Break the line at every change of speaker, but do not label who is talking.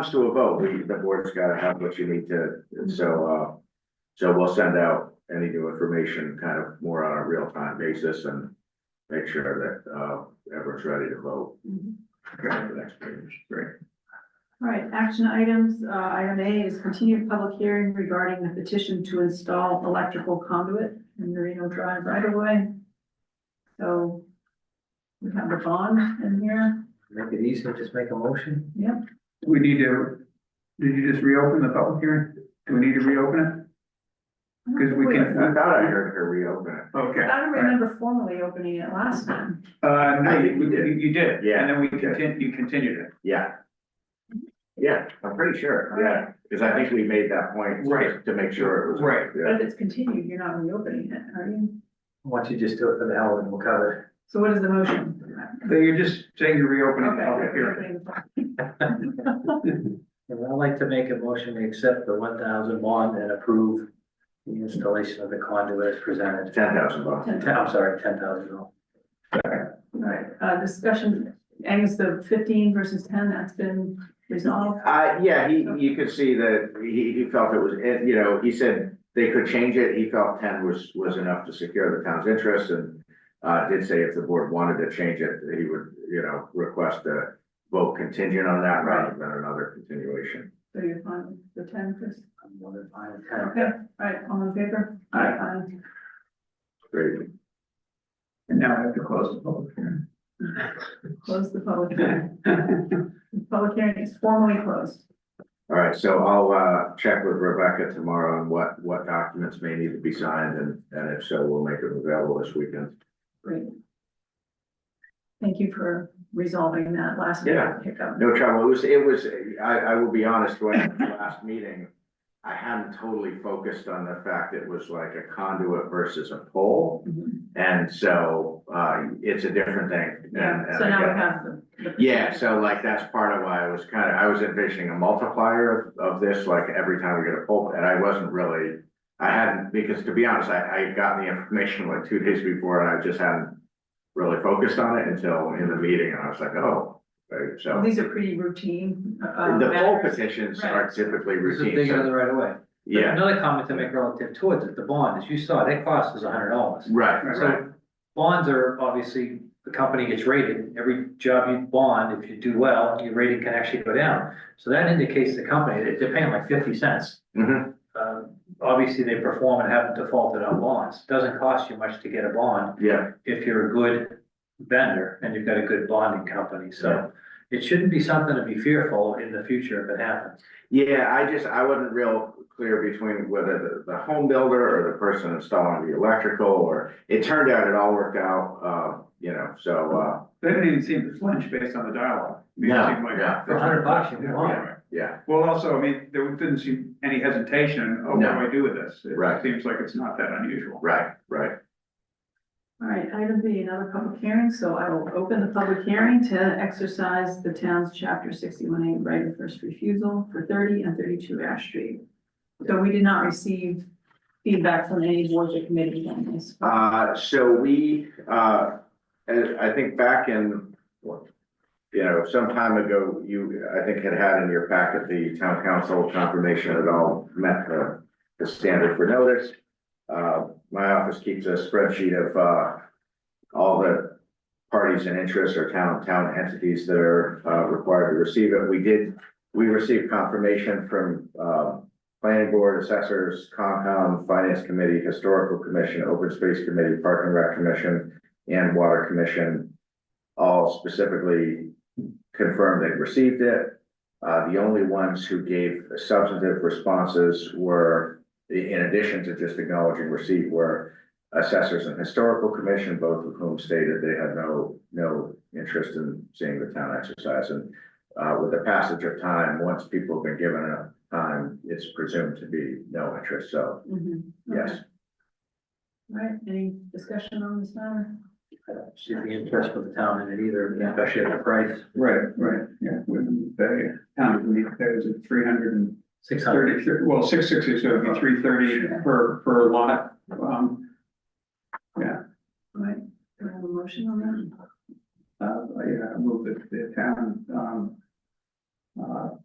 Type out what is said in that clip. comes to a vote, we, the board's gotta have what you need to, and so, uh, so we'll send out any new information kind of more on a real-time basis and make sure that, uh, everyone's ready to vote
Mhm.
for the next meeting. Great.
All right, action items, uh, item A is continued public hearing regarding the petition to install electrical conduit in Marino Drive right away. So we have the bond in here,
Make it easier, just make a motion.
yep,
We need to, did you just reopen the public hearing? Do we need to reopen it? Because we
I
can.
thought I heard her reopen it.
Okay.
I don't remember formally opening it last time.
Uh, no,
I
you,
think we
you
did.
you did.
Yeah.
And then we continued, you continued it.
Yeah. Yeah, I'm pretty sure, yeah, because I think we made that point.
Right.
To make sure it was.
Right.
But
Yeah.
if it's continued, you're not reopening it, are you?
Why don't you just do it for the hell of it, we'll cover
So what is the motion?
So you're just saying you're reopening the public hearing.
Okay.
it. And I'd like to make a motion to accept the one thousand bond and approve the installation of the conduit as presented.
Ten thousand bucks.
Ten- I'm sorry, ten thousand. Oh,
All right, uh, discussion, Angus, the fifteen versus ten, that's been resolved.
Uh, yeah, he, you could see that he, he felt it was, eh, you know, he said they could change it. He felt ten was, was enough to secure the town's interest and uh, did say if the board wanted to change it, that he would, you know, request a vote contingent on that rather than another continuation.
So you're fine with the ten, Chris?
I'm wondering if I'm ten.
Okay, all right, all in favor?
Aye.
Great.
And now I have to close the public hearing.
Aye. Close the public hearing. The Public hearing is formally closed.
All right, so I'll, uh, check with Rebecca tomorrow on what, what documents may need to be signed and, and if so, we'll make them available this weekend.
Great. Thank you for resolving that last
Yeah.
hiccup.
No trouble. It was, it was, I, I will be honest, when at the last meeting, I hadn't totally focused on the fact it was like a conduit versus a pole.
Mhm.
And so, uh, it's a different thing. and-
Yeah,
and
so
I
now
get-
we have the. the-
Yeah, so like that's part of why I was kind of, I was envisioning a multiplier of, of this, like every time we get a pole, and I wasn't really. I hadn't, because to be honest, I, I had gotten the information like two days before and I just hadn't really focused on it until in the meeting and I was like, oh. right, so.
Well, These are pretty routine. uh,
The poll
matters.
petitions are
Right.
typically
This is
routine,
digging in
so,
the right away.
yeah,
Another comment to make relative towards it, the bond, as you saw, that cost is hundred dollars.
right, right,
So bonds are obviously, the company gets rated, every job you bond, if you do well, your rating can actually go down. So that indicates the company, they- they're paying like fifty cents.
mhm,
Uh, obviously, they perform and haven't defaulted on bonds. Doesn't cost you much to get a bond
yeah,
if you're a good vendor and you've got a good bonding company, so. It shouldn't be something to be fearful in the future if it happens.
yeah, I just, I wasn't real clear between whether the, the home builder or the person installing the electrical, or. It turned out it all worked out, uh, you know, so, uh,
They didn't even seem to flinch based on the dialogue. It
No,
seemed like-
yeah.
For a hundred bucks, you can want it.
uh, yeah,
Well, also, I mean, there didn't seem any hesitation, oh, what do
No.
I do with this? It
Right.
Seems like it's not that unusual.
right, right.
All right, item B, another public hearing, so I will open the public hearing to exercise the town's chapter sixty-one A right of first refusal for thirty and thirty-two Ash Street. So we did not receive feedback from any boards or committees on this.
Uh, so we, uh, and I think back in, what, you know, some time ago, you, I think had had in your packet the town council confirmation it all met the, the standard for notice. Uh, my office keeps a spreadsheet of, uh, all the parties and interests or town, town entities that are, uh, required to receive it. We did, we received confirmation from, uh, planning board, assessors, Concom, finance committee, historical commission, open space committee, park and rec commission, and water commission. All specifically confirmed they received it. Uh, the only ones who gave substantive responses were, in addition to just acknowledging receipt, were assessors and historical commission, both of whom stated they had no, no interest in seeing the town exercise. And, uh, with the passage of time, once people have been given a time, it's um, presumed to be no interest, so
Mhm, okay.
Mm-hmm. yes.
All right, any discussion on this matter?
I don't See the interest for the town in it either, especially at the price,
Right, right, yeah, wouldn't the town would need to pay, was it three hundred and
six hundred.
thirty, well, six sixty, so it'd be three thirty per, per lot. Um,
All right, do I have a motion on that?
uh, yeah, I moved it to the town, um, uh,